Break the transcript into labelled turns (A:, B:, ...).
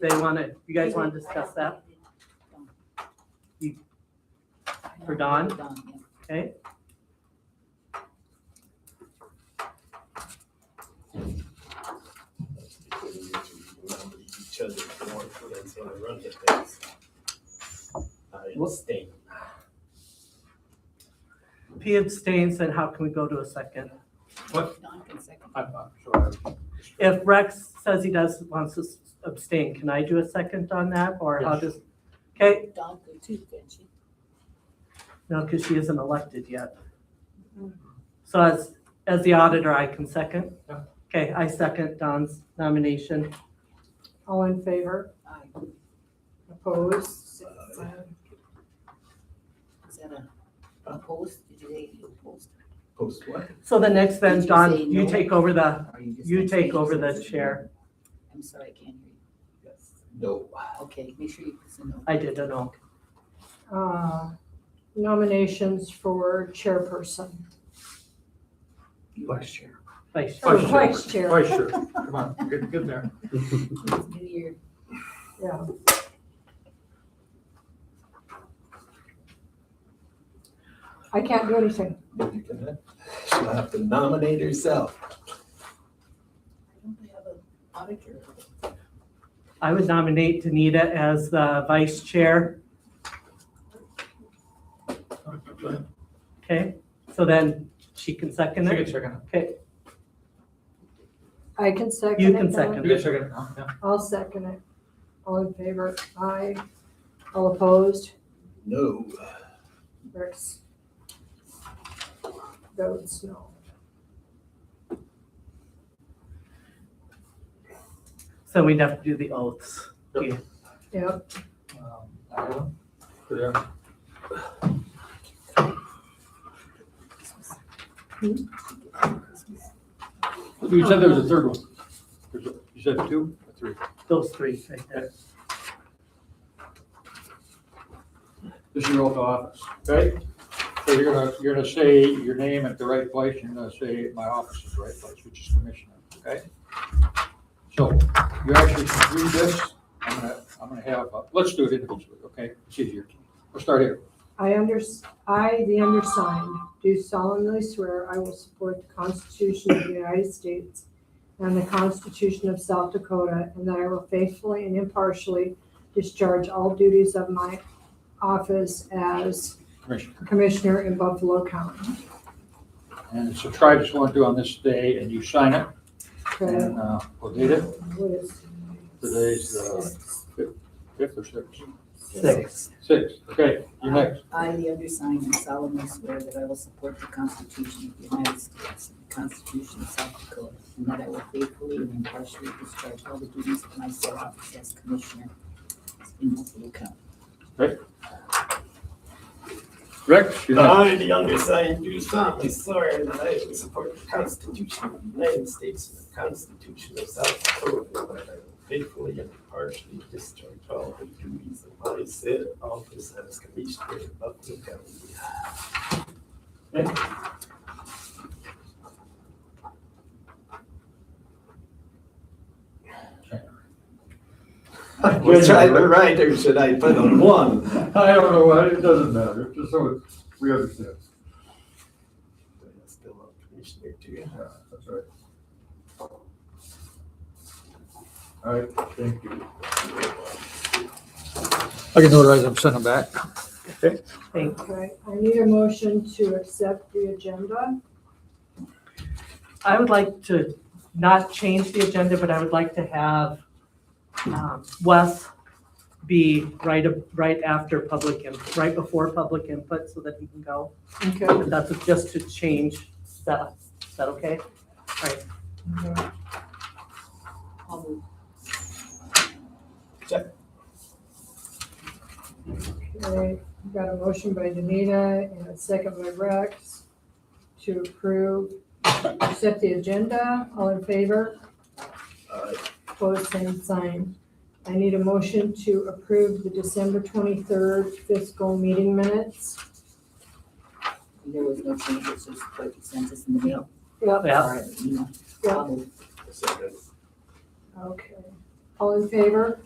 A: they want to, you guys want to discuss that For Dawn? Okay.
B: Each other more for them to run the things. I abstain.
A: P abstains, then how can we go to a second?
C: Dawn can second.
D: I'm not sure.
A: If Rex says he does, wants to abstain, can I do a second on that, or how
D: Yes.
A: does? Okay,
C: Dawn could too, couldn't she?
A: no, because she isn't elected yet. So as, as the auditor, I can second?
D: Yeah.
A: Okay, I second Don's nomination.
E: All in favor?
C: Aye.
E: Opposed?
C: Is that a, a post? Did you say you post?
B: Post what?
A: So the next
C: Did
A: then,
C: you say
A: Don, you
C: no?
A: take over the,
C: Or you just
A: you
C: gonna
A: take
C: change
A: over
C: this?
A: the chair.
C: I'm sorry, I can't hear you.
B: No.
C: Okay, make sure you put some notes.
A: I did an all.
E: Uh, Nominations for chairperson.
D: Vice chair.
A: Vice
E: Or
D: Vice
A: chair.
D: chair.
E: vice chair.
D: Vice chair. Come on, we're getting good there.
C: It's New Year.
E: Yeah. I can't do anything.
B: You can- She'll have to nominate herself.
C: I don't think I have an auditor.
A: I would nominate Danita as the vice chair. Okay, so then she can second
D: Take a
A: it.
D: second.
E: I can second it.
A: You can
E: now.
A: second.
D: Take a second now, yeah.
E: I'll second it. All in favor? Aye. All opposed?
B: No.
E: Rex votes no.
A: So we'd have to do the oaths.
E: Yep,
D: Um, that one. Good there. You said there was a third one. There's a- You said two or three?
A: Those three right there.
D: This is your oath of office, okay? So you're gonna, you're gonna say your name at the right place, and you're gonna say my office is the right place, which is commissioner, okay? So you actually can read this, I'm gonna, I'm gonna have, uh, let's do it individually, okay? It's easier. We'll start here.
E: I under, I, the undersigned, do solemnly swear I will support the Constitution of the United States and the Constitution of South Dakota, and that I will faithfully and impartially discharge all duties of my office as
D: Commissioner.
E: Commissioner in Buffalo County.
D: And it's a try just want to do on this day, and you sign it,
E: Okay,
D: and, uh, we'll date it.
E: what is-
D: Today's, uh, fif- fifth or sixth?
A: Six.
D: Sixth, okay, you're next.
C: I, the undersigned, solemnly swear that I will support the Constitution of the United States and the Constitution of South Dakota, and that I will faithfully and impartially discharge all the duties of my said office as Commissioner in Buffalo County.
D: Rex, you're next.
B: I, the younger son, do solemnly swear that I will support the Constitution of the United States and the Constitution of South Dakota, and that I will faithfully and impartially discharge all the duties of my said office as Commissioner of Buffalo County. Which I have a right, or should I put on one?
F: I don't know, it doesn't matter, just so it- we understand.
B: Still a commissioner too.
F: Yeah, that's right. All right, thank you.
D: I can notarize them, send them back.
A: Thank,
E: Okay, I need a motion to accept the agenda.
A: I would like to not change the agenda, but I would like to have um, Wes be right, ab- right after public, input, right before public input so that he can go.
E: Okay.
A: But That's just to change that. Is that okay?
C: I'll move
E: Okay, we've got a motion by Danita and a second by Rex to approve, accept the agenda. All in favor?
B: Aye.
E: Opposed, same sign. I need a motion to approve the December twenty-third fiscal meeting minutes.
C: There was no changes, just put consensus in the mail.
E: Yep,
A: Yeah.
C: Or, you know,
E: Yeah.
C: I'll move.
B: Second.
E: okay. All in favor?